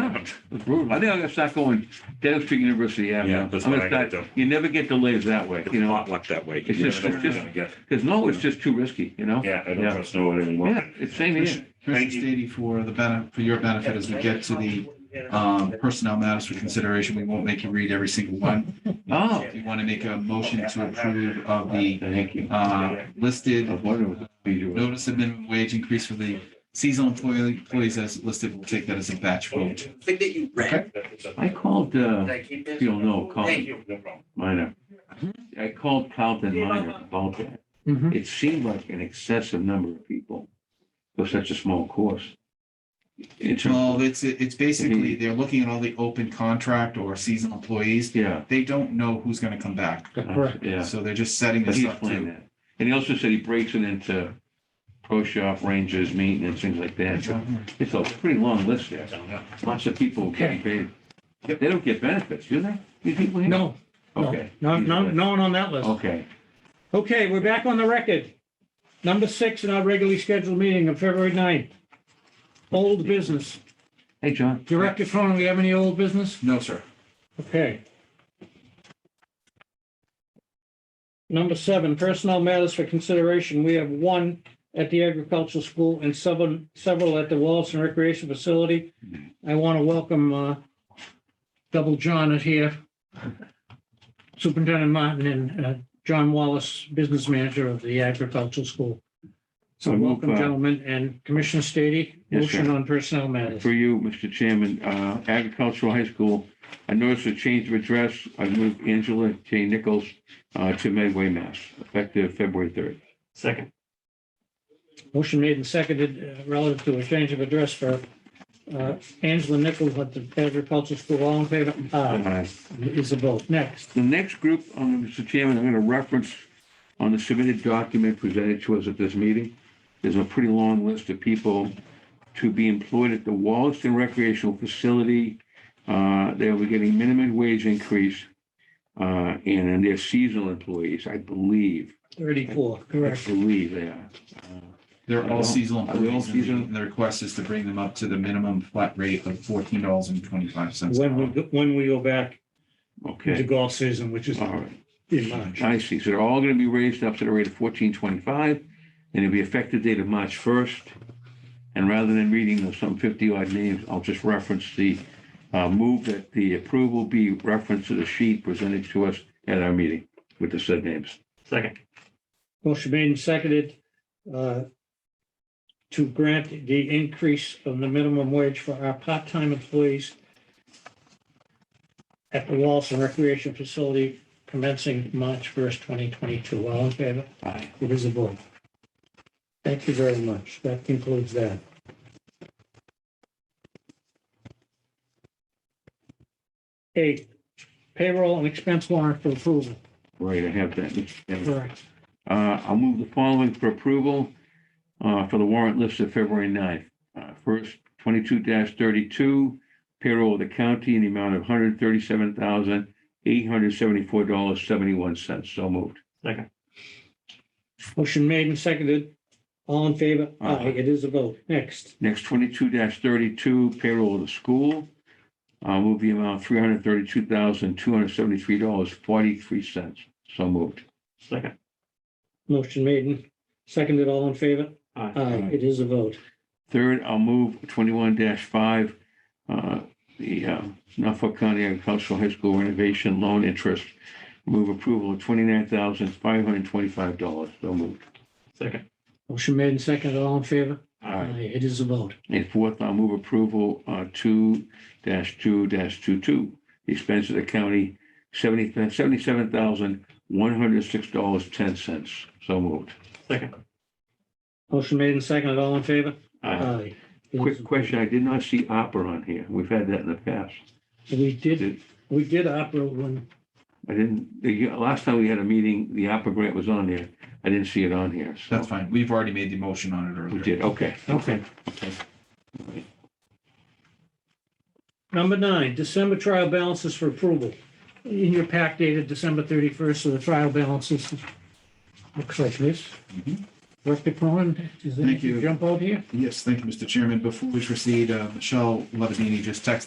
happens. It's brutal. I think I'm gonna start going Dedham Street University Avenue. Yeah, that's I'm what gonna I start- do. You never get delays that way, It's you know, not luck that way. It's You just- never it's know just- what you're gonna get. because no, it's just too risky, you know? Yeah, I don't Yeah. trust no one anymore. Yeah, it's same here. Commissioner Thank you. Stady, for the benefit, for your benefit, as we get to the um, personnel matters for consideration, we won't make you read every single one. Oh, If you want to make a motion to approve of the thank you. I uh, listed was wondering what the procedure was. notice of minimum wage increase for the seasonal employee- employees as listed, we'll take that as a batch vote. Thing that you read. I called, uh, Thank you. if you'll know, Thank Colin you. No problem. Minor. I called Plowton Minor about that. Mhm. It seemed like an excessive number of people for such a small course. In terms, Well, it's, it's basically, they're looking at all the open contract or seasonal employees. yeah, They don't know who's going to come back. Correct. yeah. So they're just setting But this he up explained to. that. And he also said he breaks it into pro shop, rangers, maintenance, things like that. So It's a pretty long list there. Lots of people getting paid. Yep. They don't get benefits, do they? These people here? No, no, Okay. Oh. no, no, no one on that list. Okay. Okay, we're back on the record. Number six in our regularly scheduled meeting of February 9th. Old business. Hey, John. Director Cronin, we have any old business? No, sir. Okay. Number seven, personnel matters for consideration. We have one at the agricultural school and several, several at the Wallace Recreation Facility. I want to welcome, uh, Double John is here. Superintendent Martin and, uh, John Wallace, business manager of the agricultural school. So uh, Welcome, gentlemen, and Commissioner Stady, Yes, sir. motion on personnel matters. For you, Mr. Chairman, uh, agricultural high school, I noticed a change of address. I moved Angela J. Nichols uh, to Medway, Mass, effective February 3rd. Second. Motion made and seconded uh, relative to a change of address for uh, Angela Nichols at the agricultural school. All in favor? Aye. Uh, Is a vote. Next. The next group, um, Mr. Chairman, I'm going to reference on the submitted document presented to us at this meeting. There's a pretty long list of people to be employed at the Wallaston Recreational Facility. Uh, They were getting minimum wage increase, uh, and then they're seasonal employees, I believe. 34, I correct. believe they are. Uh, They're all seasonal Are they all employees, seasonal? and the request is to bring them up to the minimum flat rate of fourteen dollars and twenty-five cents. When we, go- when we go back to Okay, golf season, which is all right. in March. I see. So they're all going to be raised up to the rate of fourteen twenty-five, and it'll be effective date of March first. And rather than reading the some fifty odd names, I'll just reference the uh, move that the approval be referenced to the sheet presented to us at our meeting with the said names. Second. Motion made and seconded uh, to grant the increase of the minimum wage for our part-time employees at the Wallace and Recreation Facility commencing March 1st, 2022. All in favor? Aye. It is a vote. Thank you very much. That concludes that. Eight, payroll and expense warrant for approval. Right, I have that. Mr. Chairman. Correct. Uh, I'll move the following for approval uh, for the warrant list of February 9th. Uh, First, twenty-two thirty-two, payroll of the county in the amount of hundred thirty-seven thousand, eight hundred seventy-four dollars, seventy-one cents. So moved. Motion made and seconded. All in favor? Aye. Aye, it is a vote. Next, Next, twenty-two thirty-two, payroll of the school. I'll move the amount three hundred thirty-two thousand, two hundred seventy-three dollars, forty-three cents. So moved. Second. motion made and seconded. All in favor? Aye. Aye, it is a vote. Third, I'll move twenty-one five, uh, the uh, Norfolk County Agricultural High School renovation loan interest. Move approval of twenty-nine thousand five hundred twenty-five dollars. So moved. Second. Motion made and seconded. All in favor? Aye. It is a vote. And fourth, I'll move approval uh, two two two-two. The expense of the county, seventy, seventy-seven thousand one hundred six dollars, ten cents. So moved. Second. Motion made and seconded. All in favor? Uh, Aye. It is a Quick vote. question, I did not see opera on here. We've had that in the past. We did, Did- we did opera one. I didn't, the year- last time we had a meeting, the opera grant was on there. I didn't see it on here, so. That's fine. We've already made the motion on it We earlier. did, okay. Okay. Number nine, December trial balances for approval. In your pack dated December 31st, so the trial balances looks like this. Mhm. Director Cronin, does Thank anything you. jump out here? Yes, thank you, Mr. Chairman. Before we proceed, uh, Michelle Levesini just texted